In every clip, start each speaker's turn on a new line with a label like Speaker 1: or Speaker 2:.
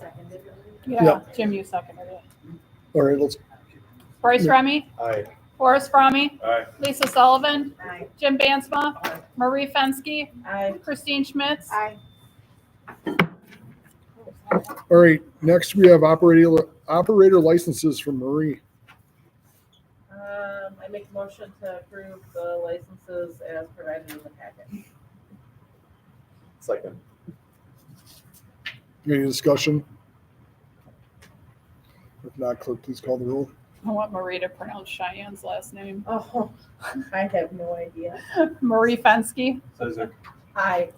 Speaker 1: seconded it.
Speaker 2: Yeah,
Speaker 3: Yep.
Speaker 2: Jim, you seconded it.
Speaker 3: All right, let's,
Speaker 2: Bryce
Speaker 3: Yeah.
Speaker 2: Remy,
Speaker 4: Aye.
Speaker 2: Forrest Fromme,
Speaker 4: Aye.
Speaker 2: Lisa Sullivan,
Speaker 1: Aye.
Speaker 2: Jim Bansma, Marie Fenske,
Speaker 1: Aye.
Speaker 2: Christine Schmitz,
Speaker 1: Aye.
Speaker 3: all right, next we have operator, operator licenses from Marie.
Speaker 5: Um, I make a motion to approve the licenses as provided in the packet.
Speaker 4: Second.
Speaker 3: Any discussion? If not, clerk, please call the roll.
Speaker 2: I want Marie to pronounce Cheyenne's last name.
Speaker 5: Oh, I have no idea.
Speaker 2: Marie Fenske,
Speaker 4: Isaac.
Speaker 5: Aye.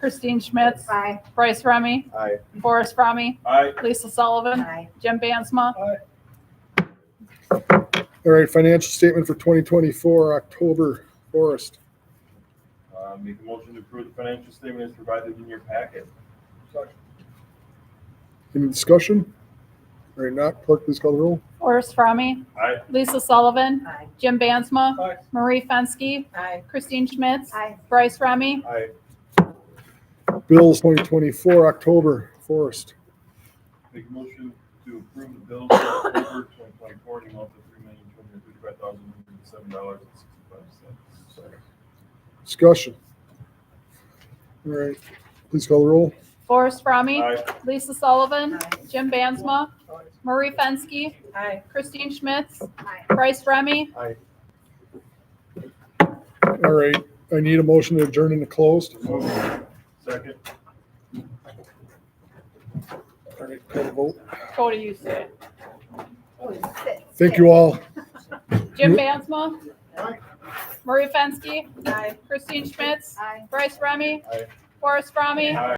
Speaker 2: Christine Schmitz,
Speaker 1: Aye.
Speaker 2: Bryce Remy,
Speaker 4: Aye.
Speaker 2: Forrest Fromme,
Speaker 4: Aye.
Speaker 2: Lisa Sullivan,
Speaker 1: Aye.
Speaker 2: Jim Bansma,
Speaker 3: All right, financial statement for 2024, October, Forrest.
Speaker 4: Uh, make a motion to approve the financial statement as provided in your packet.
Speaker 3: Any discussion? All right, not, clerk, please call the roll.
Speaker 2: Forrest Fromme,
Speaker 4: Aye.
Speaker 2: Lisa Sullivan,
Speaker 1: Aye.
Speaker 2: Jim Bansma,
Speaker 4: Aye.
Speaker 2: Marie Fenske,
Speaker 5: Aye.
Speaker 2: Christine Schmitz,
Speaker 1: Aye.
Speaker 2: Bryce Remy,
Speaker 4: Aye.
Speaker 3: Bills 2024, October, Forrest.
Speaker 4: Make a motion to approve the bills for October twenty twenty-four in the amount of three million, two hundred and thirty-five thousand, one hundred and seven dollars and sixty-five cents.
Speaker 3: Discussion. All right, please call the roll.
Speaker 2: Forrest Fromme,
Speaker 4: Aye.
Speaker 2: Lisa Sullivan,
Speaker 1: Aye.
Speaker 2: Jim Bansma, Marie Fenske,
Speaker 5: Aye.
Speaker 2: Christine Schmitz,
Speaker 1: Aye.
Speaker 2: Bryce Remy,
Speaker 4: Aye.
Speaker 3: All right, I need a motion to adjourn into closed.
Speaker 4: Move. Second.
Speaker 3: All right, call the vote.
Speaker 2: Cody, you say it.
Speaker 1: Oh, it's six.
Speaker 3: Thank you all.
Speaker 2: Jim Bansma,
Speaker 4: Aye.
Speaker 2: Marie Fenske,
Speaker 5: Aye.
Speaker 2: Christine Schmitz,
Speaker 1: Aye.
Speaker 2: Bryce Remy,
Speaker 4: Aye.
Speaker 2: Forrest Fromme,
Speaker 4: Aye.